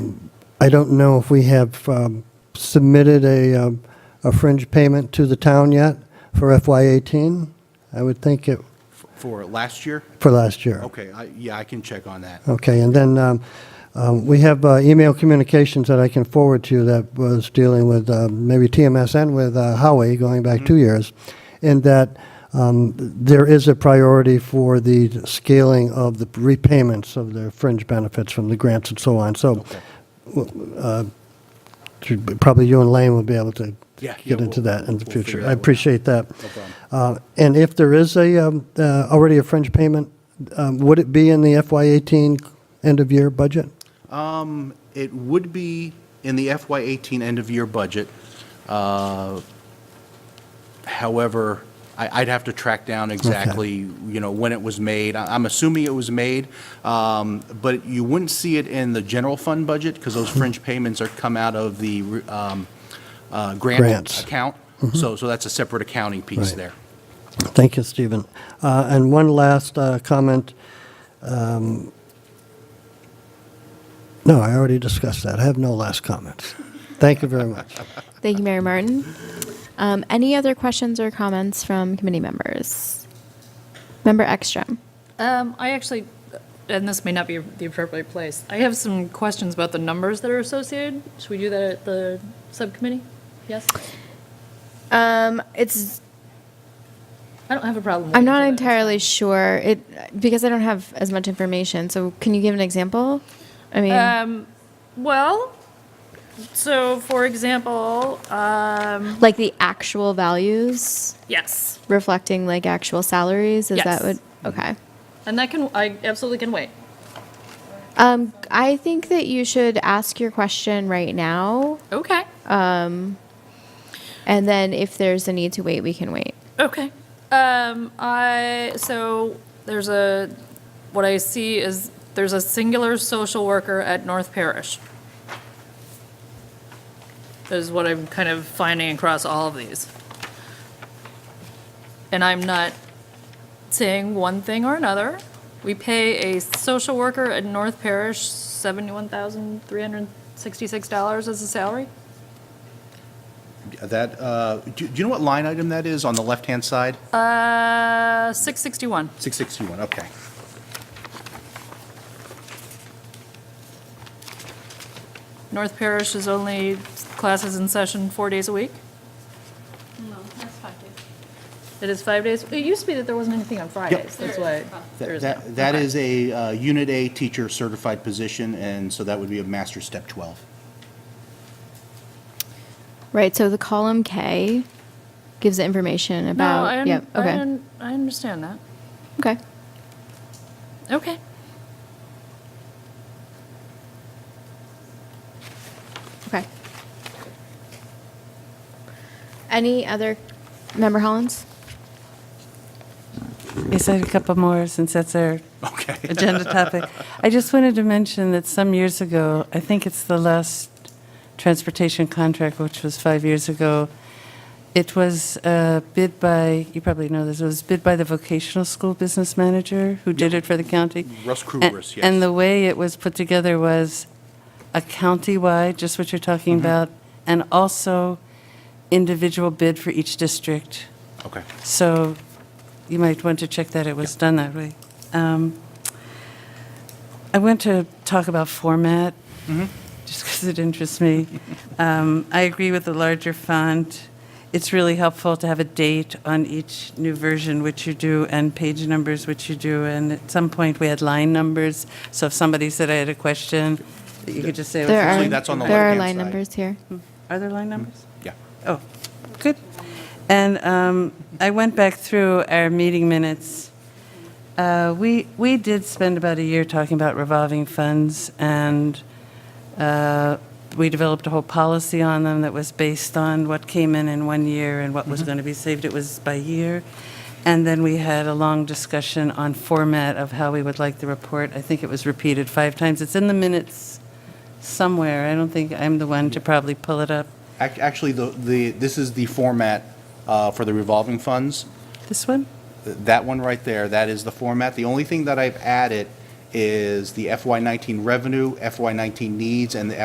I don't know if we have um, submitted a, um, a fringe payment to the town yet for FY eighteen. I would think it, F- For last year? for last year. Okay, I, yeah, I can check on that. Okay, and then um, um, we have uh, email communications that I can forward to you that was dealing with uh, maybe TMS and with uh, Howie going back Mm-hmm. two years, in that um, there is a priority for the scaling of the repayments of the fringe benefits from the grants and so on. So w- uh, should- probably you and Lane will be able to Yeah, yeah, get into we'll- that in the we'll figure future. that I one out. appreciate that. No problem. Uh, And if there is a, um, uh, already a fringe payment, um, would it be in the FY18 end-of-year budget? It would be in the FY eighteen end-of-year budget. Uh, However, I, I'd have to track down exactly, you know, when it was made. I- I'm assuming it was made, um, but you wouldn't see it in the general fund budget because Hmm. those fringe payments are come out of the um, uh, grant Grants. Mm-hmm. account. So, so that's a separate accounting piece Right. there. Thank you, Stephen. Uh, And one last uh, comment. Um, No, I already discussed that. I have no last comments. Thank you very much. Thank you, Mary Martin. Um, any other questions or comments from committee members? Member Ekstrom. Um, I actually, and this may not be the appropriate place, I have some questions about the numbers that are associated. Should we do that at the subcommittee? Yes? Um, it's I don't have a problem. I'm waiting not for that. entirely sure it because I don't have as much information. So can you give an example? I mean, Um, well, so for example, um, like the actual values yes, reflecting like actual salaries. Is that Yes. what? Okay. and that can, I absolutely can wait. Um, I think that you should ask your question right now, Okay, and then if there's a need to wait, we can wait. okay. Um, I, so there's a, what I see is there's a singular social worker at North Parish. That is what I'm kind of finding across all of these. And I'm not saying one thing or another. We pay a social worker at North Parish $71,366 as a salary. That, uh, do do you know what line item that is on the left-hand side? Uh, 661. 661, okay. North Parish is only classes in session four days a week? No, that's five days. It is five days? It used to be that there wasn't anything on Fridays, that's There why. is. there That- is That now. that Okay. is a uh, Unit A teacher certified position, and so that would be a master step 12. Right. So the column K gives the information No, about. I, un- yep. I, Okay. un- I understand that. okay. Okay. Okay. Any other member Hollins? Yes, I had a couple more since that's our Okay. agenda topic. I just wanted to mention that some years ago, I think it's the last transportation contract, which was five years ago, it was uh, bid by, you probably know this, it was bid by the vocational school business manager who did it for the county. Russ And- Kruger's, yes. And the way it was put together was a county-wide, just what you're talking Mm-hmm. about, and also individual bid for each district. Okay. So you might want to check that it was done that way. Um, I want to talk about format, just because it interests me. Um, I agree with the larger font. It's really helpful to have a date on each new version, which you do, and page numbers, which you do. And at some point, we had line numbers, so if somebody said I had a question, you could just say, There Actually, are, that's on the there are left-hand line side. numbers here. are there line numbers? Yeah. Oh, good. And um, I went back through our meeting minutes. Uh, We, we did spend about a year talking about revolving funds, and uh, we developed a whole policy on them that was based on what came in in one year and what was going to be saved. It was by year. And then we had a long discussion on format of how we would like the report. I think it was repeated five times. It's in the minutes somewhere. I don't think I'm the one to probably pull it up. Ac- Actually, the, the this is the format uh, for the revolving funds. This one? Th- That one right there, that is the format. The only thing that I've added is the FY19 revenue, FY19 needs, and the